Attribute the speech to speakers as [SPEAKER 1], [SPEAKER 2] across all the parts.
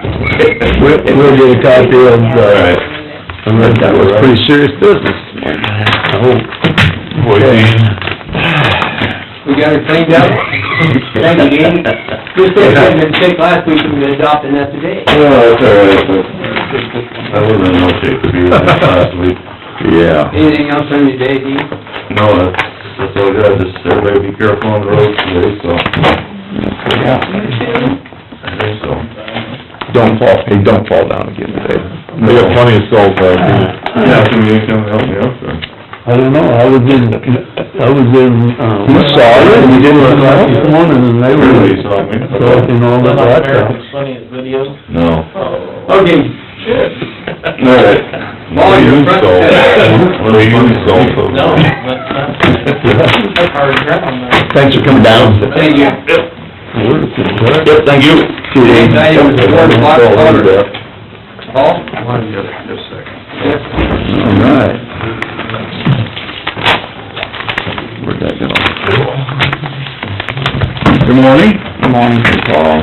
[SPEAKER 1] We'll, we'll get a copy of, uh,
[SPEAKER 2] Right.
[SPEAKER 1] I read that was pretty serious business. I hope.
[SPEAKER 3] We got it cleaned up. Thank you, Dean. Just so it hadn't been sick last week, we've been adopting that today.
[SPEAKER 2] Well, that's all right, but I wasn't in no shape to be with that last week. Yeah.
[SPEAKER 3] Anything else on your day, Dean?
[SPEAKER 2] No, that's, that's all good, just everybody be careful on the roads today, so. I think so.
[SPEAKER 1] Don't fall, hey, don't fall down again today.
[SPEAKER 2] We got plenty uh,
[SPEAKER 1] of salt back
[SPEAKER 2] Yeah, can you come help me out, sir?
[SPEAKER 1] I don't know, I was in, I was in, uh... You saw it, and you didn't look like it, one, and they were...
[SPEAKER 2] Really saw me.
[SPEAKER 1] Talking all that, stuff.
[SPEAKER 2] No.
[SPEAKER 1] Oh,
[SPEAKER 3] Okay,
[SPEAKER 2] All right.
[SPEAKER 1] Oh,
[SPEAKER 3] Well, you're
[SPEAKER 2] Use
[SPEAKER 3] front-
[SPEAKER 2] salt. We'll use salt. No,
[SPEAKER 1] Thanks for coming down.
[SPEAKER 3] thank you.
[SPEAKER 1] Yep, thank you.
[SPEAKER 3] Next item is board block order. Paul? Yes.
[SPEAKER 1] All right. Where'd that go? Good morning. Good morning. Paul.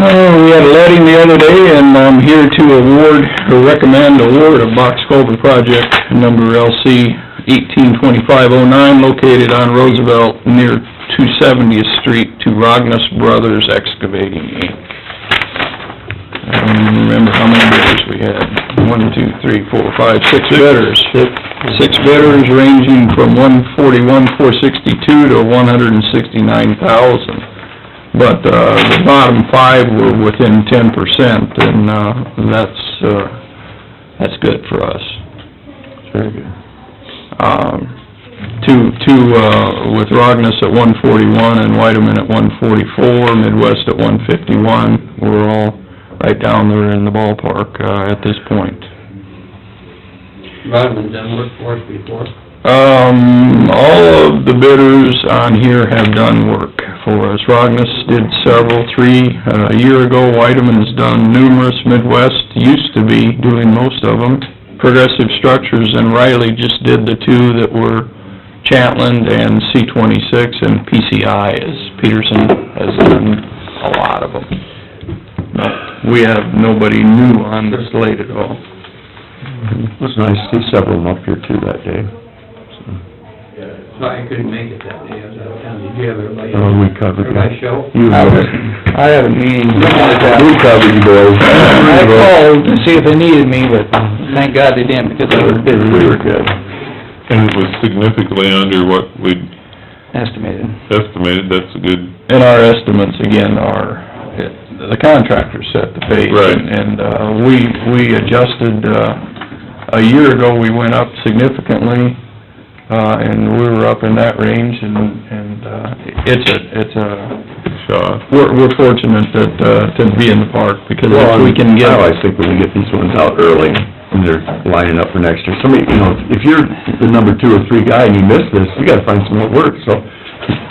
[SPEAKER 1] Oh, we had a letting the other day, and I'm here to award, or recommend award of Box Culvert Project number LC eighteen twenty-five oh nine, located on Roosevelt near two seventieth street to Rognus Brothers Excavating, Inc. I don't even remember how many bidders we had. One, two, three, four, five, six bidders. Six bidders ranging from one forty-one, four sixty-two to one hundred and sixty-nine thousand. But, uh, the bottom five were within ten percent, and, uh, that's, uh, that's good for us. Very good. Um, two, two, uh, with Rognus at one forty-one and Whiteman at one forty-four, Midwest at one fifty-one. We're all right down there in the ballpark, uh, at this point.
[SPEAKER 3] Rodman's done work for us before.
[SPEAKER 1] Um, all of the bidders on here have done work for us. Rognus did several, three, uh, a year ago. Whiteman's done numerous. Midwest used to be doing most of them. Progressive Structures and Riley just did the two that were Chatland and C twenty-six and PCI is Peterson has done a lot of them. No, We have nobody new on the slate at all.
[SPEAKER 4] It was nice to see several of them up here too that day.
[SPEAKER 3] Sorry, I couldn't make it that day, I was out of town. Did you have everybody?
[SPEAKER 4] Oh, we covered that.
[SPEAKER 3] Everybody show?
[SPEAKER 4] You
[SPEAKER 1] I was,
[SPEAKER 4] were-
[SPEAKER 1] I had a meeting.
[SPEAKER 4] We covered you boys.
[SPEAKER 1] I called to see if they needed me, but thank God they didn't, because I would've been
[SPEAKER 4] We were good.
[SPEAKER 5] And it was significantly under what we
[SPEAKER 1] estimated.
[SPEAKER 5] estimated, that's a good,
[SPEAKER 1] And our estimates, again, are, the contractor set the pay.
[SPEAKER 5] Right.
[SPEAKER 1] And, uh, we, we adjusted, uh, a year ago, we went up significantly, uh, and we were up in that range, and, and, uh, it's a, it's a,
[SPEAKER 5] shot.
[SPEAKER 1] we're, we're fortunate that, uh, to be in the park, because if we can get...
[SPEAKER 4] I always think we can get these ones out early, and they're lining up for next year. Somebody, you know, if you're the number two or three guy and you miss this, you gotta find some more work, so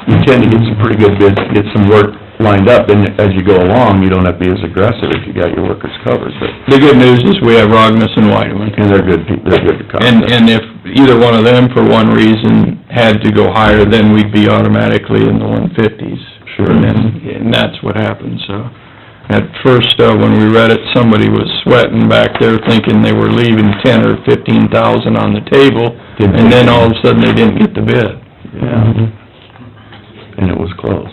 [SPEAKER 4] you tend to get some pretty good bids, get some work lined up, and as you go along, you don't have to be as aggressive if you got your workers covered, but,
[SPEAKER 1] The good news is we have Rognus and Whiteman.
[SPEAKER 4] and they're good, people. they're good to cover.
[SPEAKER 1] And, and if either one of them, for one reason, had to go higher, then we'd be automatically in the one fifties.
[SPEAKER 4] Sure.
[SPEAKER 1] And then, and that's what happened, so. At first, uh, when we read it, somebody was sweating back there thinking they were leaving ten or fifteen thousand on the table,
[SPEAKER 4] Didn't-
[SPEAKER 1] and then all of a sudden they didn't get the bid.
[SPEAKER 4] Yeah. And it was close.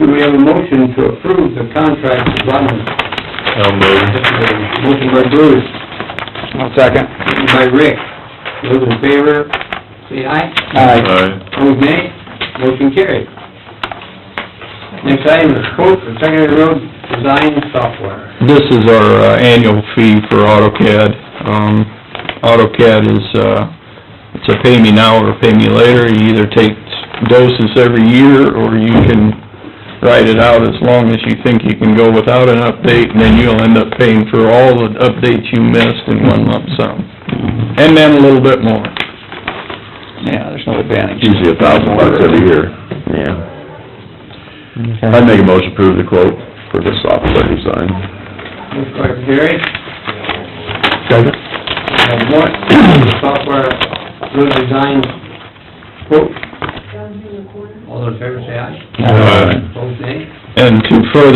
[SPEAKER 3] Do we have a motion to approve the contract with Rodman?
[SPEAKER 5] I'll move.
[SPEAKER 3] Motion by Bruce. second. By Rick. Those in favor, say aye.
[SPEAKER 5] Aye.
[SPEAKER 3] Opposed, nay. Motion carried. Next item is quote for secondary road design software.
[SPEAKER 1] This is our uh, annual fee for AutoCAD. Um, AutoCAD is, uh, it's a pay me now or pay me later. You either take doses every year, or you can write it out as long as you think you can go without an update, and then you'll end up paying for all the updates you missed in one lump sum.
[SPEAKER 4] Mm-hmm.
[SPEAKER 1] And then a little bit more. Yeah, there's no advantage.
[SPEAKER 4] Usually a thousand bucks every year. Yeah. I'd make a motion to approve the quote for the software design.
[SPEAKER 3] Motion by Gary,
[SPEAKER 4] Second.
[SPEAKER 3] have more software road design quote. All those in favor, say aye.
[SPEAKER 5] Aye.
[SPEAKER 3] Opposed, nay.
[SPEAKER 1] And to further